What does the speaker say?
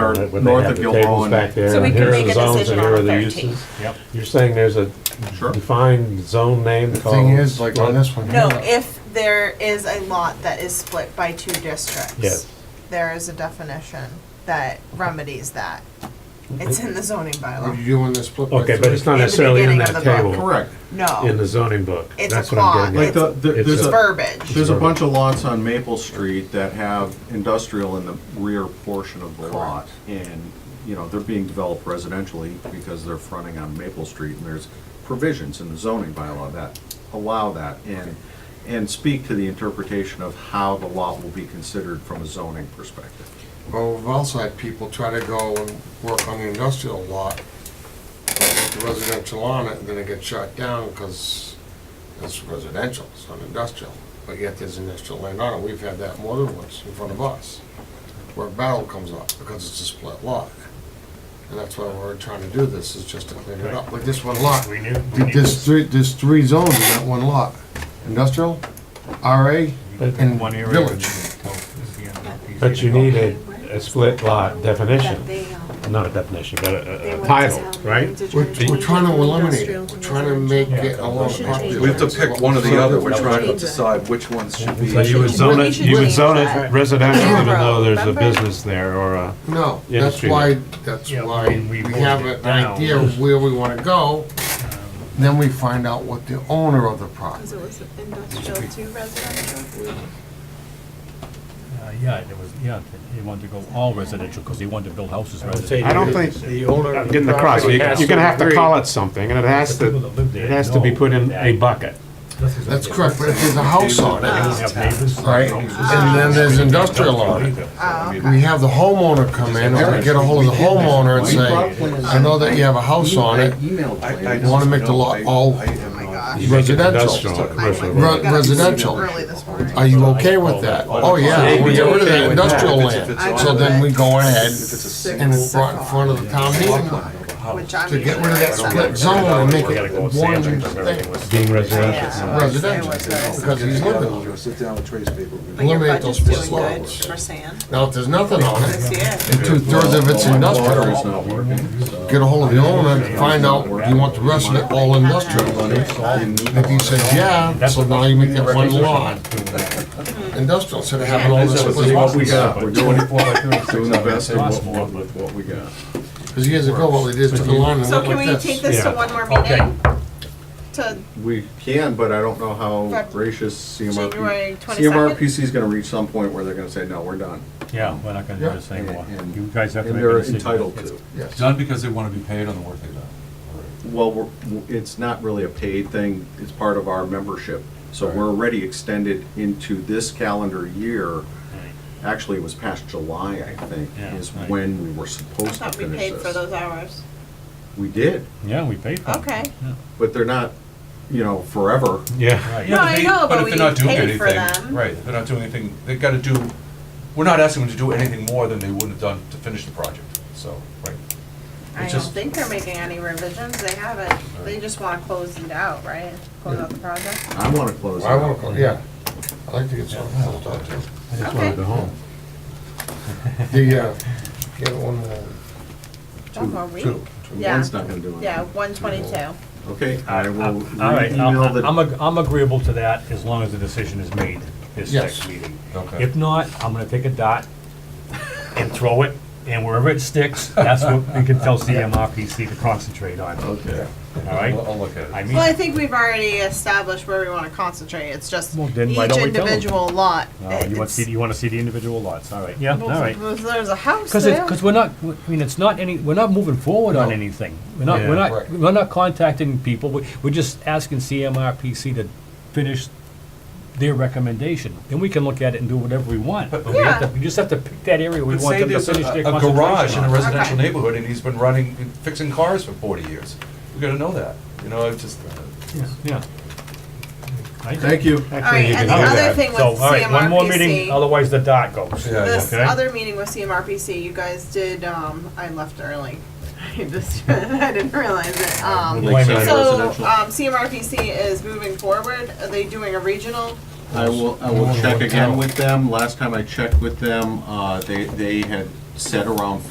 or it, but they north have of the Gilboa tables and- back there, So we and can here are make the a zones decision and on here the are the 13th. uses. Yep. You're saying there's a Sure. defined zone name The called? thing is, like on what? this one. No, here, if there is a lot that is split by two districts. Yes. There is a definition that remedies that. It's in the zoning What bylaw. you do on this split? by Okay, but it's not the necessarily in beginning that of the book. table, Correct. in No, the zoning book. It's That's a what I'm clause. getting Like at. the, the- It's there's it's a, verbiage. there's a bunch of lots on Maple Street that have industrial in the rear portion of the lot. And, you know, they're being developed residentially because they're fronting on Maple Street. And there's provisions in the zoning bylaw that allow that and, and speak to the interpretation of how the lot will be considered from a zoning perspective. Well, we've also had people try to go and work on the industrial lot, but with the residential on it, and then it gets shut down because it's residential, it's not industrial. But yet there's industrial land on it. We've had that more than once in front of us, where a battle comes up because it's a split lot. And that's why we're trying to do this, is just to clean it up. Like this one lot, We knew. we knew there's this. three, there's three zones in that one lot. Industrial, RA, and One area village. is the- is the NLPC. But you need a, a split lot definition, They, um, not a definition, but a- they a, a want title, to tell me right? to We're, join we're trying to between eliminate industrial it, and we're trying to make it a lot Should popular. We have to decide which ones should So you would zone it, you would zone it residential even though there's a Remember? business there or a, No, that's Industry. why, that's Yeah, why and we we have voted an it down. idea of where we wanna go, then we find out what the owner of the property. it was industrial to residential? Uh, Yeah, there was, yeah, he wanted to go all residential, because he wanted to build houses I would residential. say I don't you- think I'm the owner of Getting the across, property you're has gonna have to agree. call it something and it has The people to, that live there it has to be know put in a that bucket. this is- That's correct, but if there's a house on They it, don't have neighbors. right, and then there's industrial on it, we have the homeowner come in, or we get a hold of the homeowner and say, I know that you have a house on it, You wanna make the lot all residential. Industrial, commercial. Re- residential. Early this morning. Are you okay with that? Oh, yeah, we get rid of that industrial land. So then we go ahead and we're brought in front of the town meeting Which I'm to get rid of that usually upset split zone and make it one thing, Being residential. Yeah. residential, because he's living. Sit down with Trace people. But your eliminate those budget's split doing good lots. for sand Now, if there's nothing on this it, year. and two-thirds of it's industrial, get a hold of the owner and find out, do you want the rest of it all industrial? If he says, yeah, so now you make that one lot industrial, instead of having all this split What we lots. got, we're doing, doing the best of what- what, with what we got. Because years ago, what we did is took a line and So went can we like take this. this to Yeah. one more Okay. meeting? To We can, but I don't know how Feb- gracious CMRPC. January 22nd? CMRPC is gonna reach some point where they're gonna say, no, we're done. Yeah, we're not gonna do this And- anymore. and- You guys have to And make a they're decision. entitled to. Yes. Done because they want to be paid on the work they've done. Well, we're, it's not really a paid thing, it's part of our membership. So we're already extended into this calendar year. Actually, it was past July, I think, Yeah, is right. when we were I supposed to thought we finish paid for this. those hours. We did, Yeah, we paid for it. Okay. but they're not, you know, forever. Yeah. No, I know, but if they're we not doing paid for anything- them. Right, if they're not doing anything, they've got to do, we're not asking them to do anything more than they would have done to finish the project, so, right. I It's don't just- think they're making any revisions, they haven't, they just wanna close it out, right? Close out the project? I wanna close it I want out. to, yeah. I like to get some full time too. I just wanted to go home. The, uh, get one more. One more week? Two. Yeah. One's not gonna do anything. Yeah, one twenty-two. Okay, I Uh, will All right, re-email I'm, I'm the, ag- I'm agreeable to that as long as the decision is made this Yes. next meeting. Okay. If not, I'm gonna take a dot and throw it, and wherever it sticks, that's what we can tell CMRPC to concentrate on, all okay. right? I'll I'll look at it. I mean, Well, I think we've already established where we wanna concentrate, it's just Well, each then why don't we tell them? individual lot. Oh, you want to see, you want to see the individual lots, all right, yeah, all Well, right. if There's a house Because there. because we're not, I mean, it's not any, we're not moving forward on anything. We're not, we're Yeah. not, Right. we're not contacting people. We- We're just asking CMRPC to finish their recommendation. Then we can look at it and do whatever we want. But we have to, we just have to pick that area we But want say them to there's finish a their a garage in a concentration on. residential Okay. neighborhood and he's been running, fixing cars for forty years. We gotta know that, you know, it's just, uh, Yeah. Right? Thank you. All right, and the Okay. other thing with So, all right, one more meeting, CMRPC, otherwise the dot goes. Yeah. this okay. other meeting with CMRPC, you guys did, um, I left early. I just, I didn't realize it, um. Blame it. So, um, CMRPC is moving forward, are they doing a regional? I will, I will check again with them. Last time I checked with them, uh, they, they had said around